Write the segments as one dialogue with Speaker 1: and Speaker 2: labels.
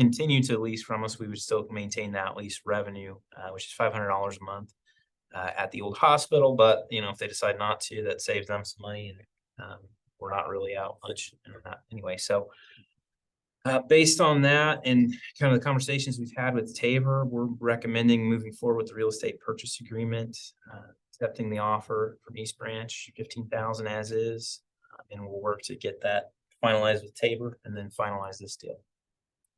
Speaker 1: continue to lease from us, we would still maintain that lease revenue, uh, which is five hundred dollars a month uh, at the old hospital, but you know, if they decide not to, that saves them some money and um, we're not really out much in that anyway, so uh, based on that and kind of the conversations we've had with Tabor, we're recommending moving forward with the real estate purchase agreement, uh, accepting the offer from East Branch, fifteen thousand as is, uh, and we'll work to get that finalized with Tabor and then finalize this deal.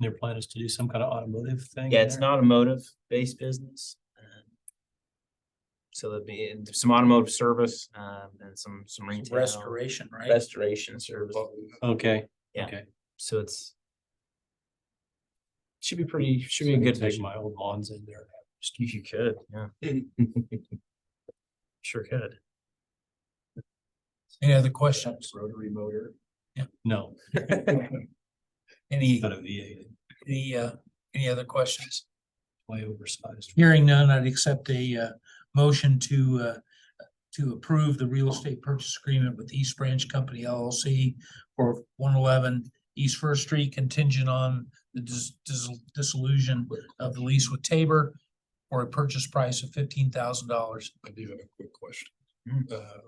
Speaker 2: Their plan is to do some kind of automotive thing.
Speaker 1: Yeah, it's an automotive-based business. um, So there'd be and some automotive service, um, and some, some retail.
Speaker 3: Restoration, right?
Speaker 1: Restoration service.
Speaker 2: Okay.
Speaker 1: So it's. Should be pretty, should be a good
Speaker 2: Take
Speaker 1: vision.
Speaker 2: my old lawns in there.
Speaker 1: If you could, yeah. Sure could.
Speaker 3: Any other questions?
Speaker 2: Rotary motor.
Speaker 3: Yeah.
Speaker 2: No,
Speaker 3: Any,
Speaker 2: not a V eight,
Speaker 3: any, uh, any other questions?
Speaker 2: way oversized.
Speaker 3: Hearing none, I'd accept a, uh, motion to, uh, to approve the real estate purchase agreement with East Branch Company LLC for one eleven East First Street contingent on the dis- dis- dissolution of the lease with Tabor for a purchase price of fifteen thousand dollars.
Speaker 4: I do have a quick question.
Speaker 1: Mm.
Speaker 4: Uh,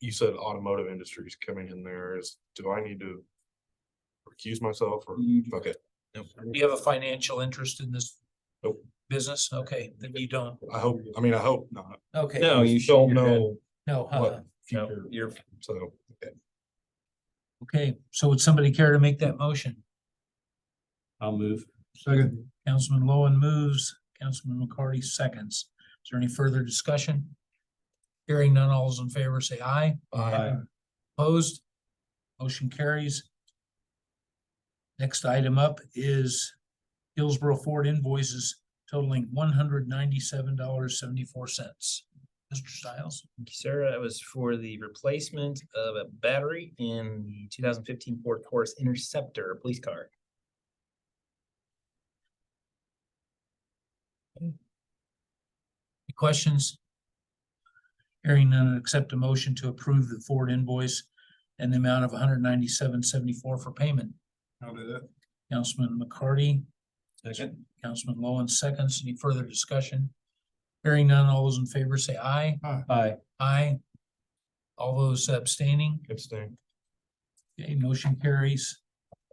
Speaker 4: You said automotive industry is coming in there. Is, do I need to recuse myself or, okay,
Speaker 3: Do you have a financial interest in this?
Speaker 4: Nope.
Speaker 3: Business? Okay, then you don't.
Speaker 4: I hope, I mean, I hope not.
Speaker 3: Okay.
Speaker 1: No, you should.
Speaker 4: Don't
Speaker 1: you're good.
Speaker 4: know,
Speaker 3: No, uh, huh?
Speaker 4: What?
Speaker 1: No, You're,
Speaker 4: so.
Speaker 3: Okay, so would somebody care to make that motion?
Speaker 2: I'll move.
Speaker 3: Second. Councilman Lowen moves, Councilman McCarty seconds. Is there any further discussion? Hearing none, all those in favor say aye.
Speaker 2: Aye.
Speaker 3: Opposed? Motion carries. Next item up is Hillsborough Ford invoices totaling one hundred ninety-seven dollars seventy-four cents. Mr. Stiles?
Speaker 1: Thank you, sir. That was for the replacement of a battery in the two thousand fifteen Ford Taurus Interceptor police car.
Speaker 3: Any questions? Hearing none, I'd accept a motion to approve the Ford invoice and the amount of one hundred ninety-seven seventy-four for payment.
Speaker 4: How did that?
Speaker 3: Councilman McCarty,
Speaker 2: Second.
Speaker 3: Councilman Lowen seconds. Any further discussion? Hearing none, all those in favor say aye.
Speaker 2: Aye.
Speaker 3: Aye. All those abstaining,
Speaker 4: Abstain.
Speaker 3: okay, motion carries.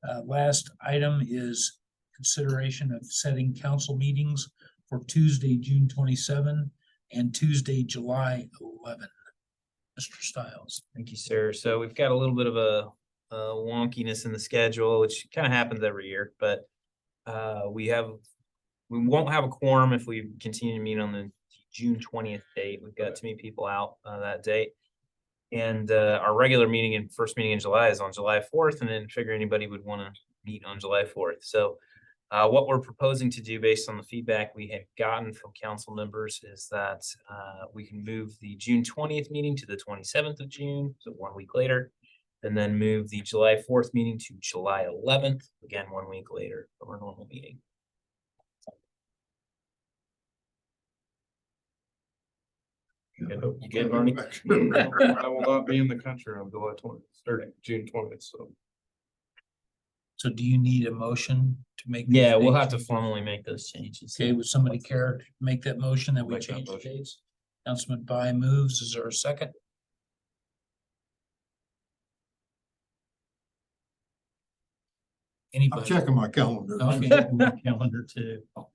Speaker 3: Uh, last item is consideration of setting council meetings for Tuesday, June twenty-seven and Tuesday, July eleven. Mr. Stiles.
Speaker 1: Thank you, sir. So we've got a little bit of a, a wonkiness in the schedule, which kind of happens every year, but uh, we have, we won't have a quorum if we continue to meet on the June twentieth date. We've got too many people out uh, that date. And uh, our regular meeting and first meeting in July is on July fourth, and then figure anybody would want to meet on July fourth. So uh, what we're proposing to do based on the feedback we had gotten from council members is that uh, we can move the June twentieth meeting to the twenty-seventh of June, so one week later. And then move the July fourth meeting to July eleventh, again, one week later, from our normal meeting. You good? You good, Barney?
Speaker 4: I will not be in the country on July twentieth, or June twentieth, so.
Speaker 3: So do you need a motion to make? these
Speaker 1: Yeah, we'll
Speaker 3: dates?
Speaker 1: have to formally make those changes.
Speaker 3: Okay, would somebody care to make that motion that we
Speaker 4: Make that
Speaker 3: change the
Speaker 4: motion.
Speaker 3: dates? Councilman By moves, is there a second?
Speaker 5: I'm
Speaker 3: Anybody?
Speaker 5: checking my calendar.
Speaker 3: Okay.
Speaker 2: My Calendar too.
Speaker 1: You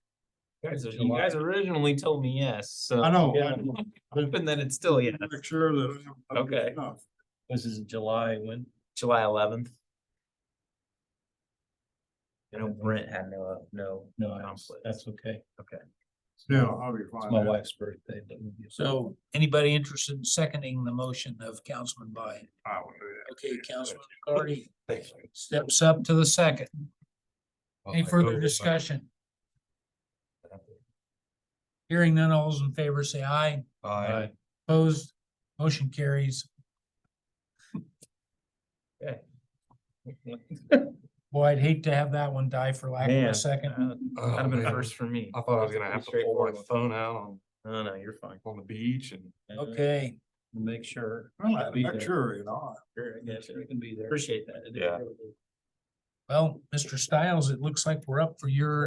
Speaker 1: guys- You
Speaker 2: July.
Speaker 1: guys originally told me yes, so.
Speaker 5: I know.
Speaker 2: Yeah.
Speaker 1: Hoping that it's still, yes.
Speaker 5: Make sure that. I'm-
Speaker 1: Okay.
Speaker 2: This is July when?
Speaker 1: July eleventh. I know Brent had no, no.
Speaker 2: No, that's,
Speaker 1: conflict.
Speaker 2: that's okay.
Speaker 5: Yeah, I'll be
Speaker 2: It's
Speaker 5: fine.
Speaker 2: my wife's birthday. but we'll be-
Speaker 3: So anybody interested in seconding the motion of Councilman By?
Speaker 4: I will do
Speaker 3: Okay, Councilman McCarty
Speaker 4: that.
Speaker 3: steps up to the second. Any
Speaker 4: I'll go
Speaker 3: further
Speaker 4: with my-
Speaker 3: discussion? Hearing none, all those in favor say aye.
Speaker 4: Aye.
Speaker 2: Aye.
Speaker 3: Opposed, motion carries. Boy, I'd hate to have that one die for lack of
Speaker 1: Man.
Speaker 3: a second.
Speaker 1: Uh, That'd
Speaker 4: Oh,
Speaker 1: have been a
Speaker 4: man.
Speaker 1: first for me.
Speaker 4: I thought I was gonna have to pull my
Speaker 1: Straightforward.
Speaker 4: phone out on,
Speaker 1: No, no, you're fine.
Speaker 4: on the beach and.
Speaker 3: Okay,
Speaker 2: Make sure.
Speaker 5: Well,
Speaker 2: Be there.
Speaker 5: Make sure, you know.
Speaker 1: Sure, I
Speaker 2: Make
Speaker 1: get
Speaker 2: sure
Speaker 1: you.
Speaker 2: you can be there.
Speaker 1: Appreciate that.
Speaker 4: Yeah.
Speaker 3: Well, Mr. Stiles, it looks like we're up for your